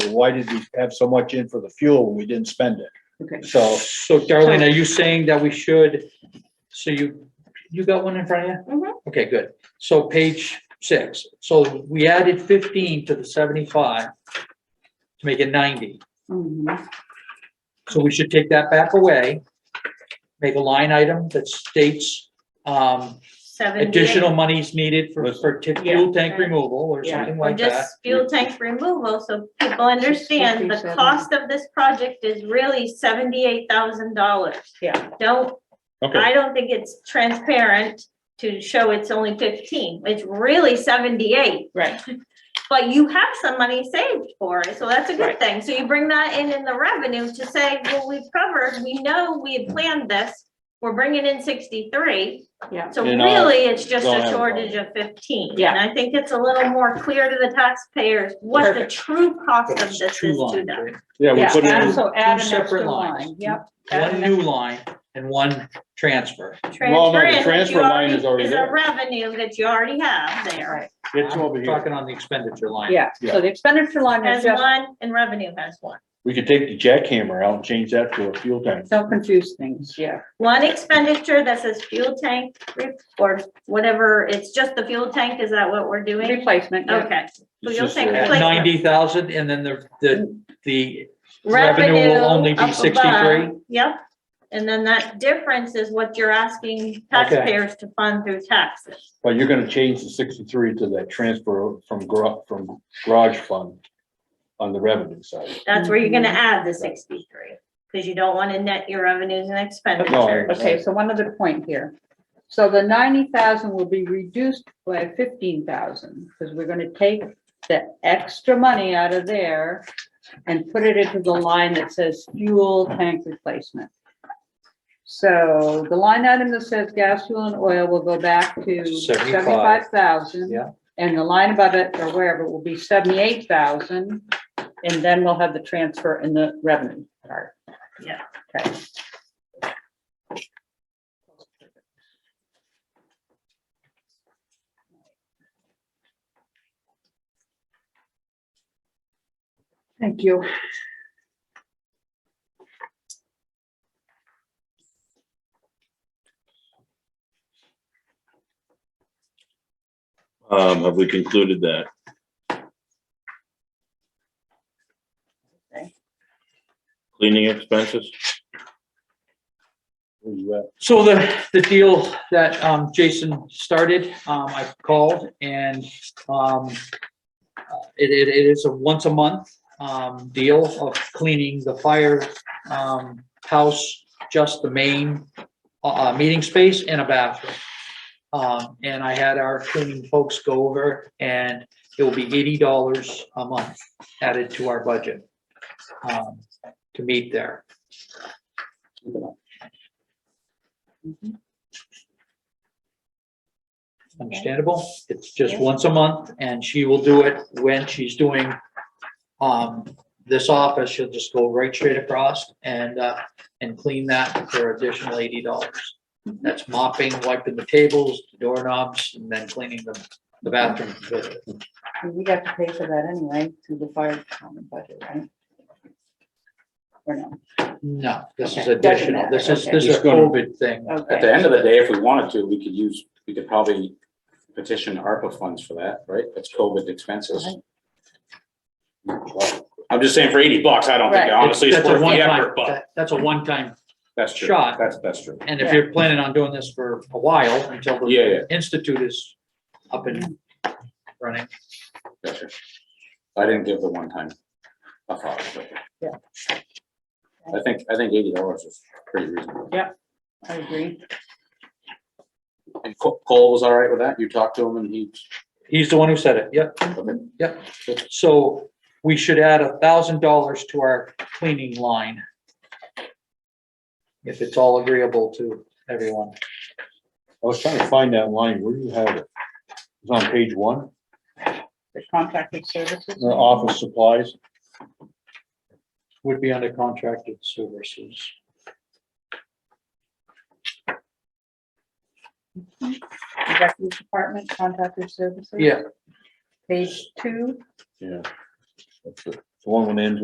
well, why did we have so much in for the fuel when we didn't spend it? Okay. So So Darlene, are you saying that we should, so you, you got one in front of Mhm. you? Mm-hmm. Okay, good. So page six, so we added fifteen to the seventy-five to make it ninety. Mhm. So we should take that back away, make a line item that states, um, Seven. additional monies needed for, for t- fuel tank Yeah. removal or Yeah. something Or like that. just fuel tank removal, so people understand the 57. cost of this project is really seventy-eight thousand dollars. Yeah. Don't, Okay, I don't think it's transparent to show it's only fifteen, it's really seventy-eight. Right, But you have some money saved for it, so that's a good Right. thing. So you bring that in in the revenue to say, well, we've covered, we know we had planned this. We're bringing in sixty-three. Yeah. So You know, really, it's just don't a have a shortage of fifteen. Yeah. And I think it's a little more clear to the taxpayers what the Perfect. true cost of It's this is two to lines, them. right? yeah, we yeah, put add- in, so add an two separate extra lines. line, yep. add One an new line and one transfer. Well, no, the Transfer in that transfer you line is already Is a there. revenue that you already have there. Right, it's over I'm here. Talking on the expenditure line. yeah, Yeah. so the expenditure line is Has just, one and revenue has one. We could take the jackhammer out and change that to a fuel tank. don't confuse things, yeah, One expenditure that says fuel tank re- or whatever, it's just the fuel tank, is that what we're doing? replacement, yeah. Okay. So It's you'll just take a- replace- uh, Ninety thousand and then the, the, the, Revenue will Revenue only be up above, 63? Yep, and then that difference is what you're asking taxpayers to fund through taxes. But you're gonna change the sixty-three to that transfer from gar- from garage fund on the revenue side. That's where you're gonna Mm-hmm. add the sixty-three, because you don't wanna net your revenues and expenditures. Okay, so one other point here. So the ninety thousand will be reduced by fifteen thousand, because we're gonna take the extra money out of there and put it into the line that says fuel tank replacement. So the line item that says gas, fuel and oil will go back to 75. seventy-five thousand. Yeah. And the line above it or wherever will be seventy-eight thousand, and then we'll have the transfer in the revenue part. Yeah. Okay. Thank you. Um, have we concluded that? Okay. Cleaning expenses? Where you at? so the, the deal that, um, Jason started, um, I called and, um, uh, it, it, it is a once a month, um, deal of cleaning the fire, um, house, just the main, uh, uh, meeting space and a bathroom. Um, and I had our cleaning folks go over and it will be eighty dollars a month added to our budget, um, to meet there. Understandable. It's just once a month and she will do it when she's doing um, this office. She'll just go right straight across and, uh, and clean that for additional eighty dollars. That's mopping, wiping the tables, doorknobs, and then cleaning the, the bathroom. We have to pay for that anyway through the fire department budget, right? Or no? No, this is Okay, doesn't additional. matter, This is, okay. Oh. this is a Just gonna- COVID thing. At Okay, the end of the day, if we wanted to, we could use, we could probably petition ARPA funds for that, right? That's COVID expenses. I'm just saying for eighty bucks, I don't think, Right. honestly, it's That's a worth the one-time- effort, but that- That's a one-time that's true. shot. That's, that's true. And if you're planning on doing this for a while, until Yeah, yeah. the institute is up and running. That's true. I didn't give the one time a thought. but- Yeah. I think, I think eighty dollars is pretty reasonable. I agree. And Co- Cole was all right with that? You talked to him and he, He's the one who said it, yep, okay, yep. So we should add a thousand dollars to our cleaning line. If it's all agreeable to everyone. I was trying to find that line, where do you have it? It's on page one, The contracted services. the office supplies, Would be under contracted services. Executive Department, contracted services. Yeah, Page two, yeah. That's it. The one that ends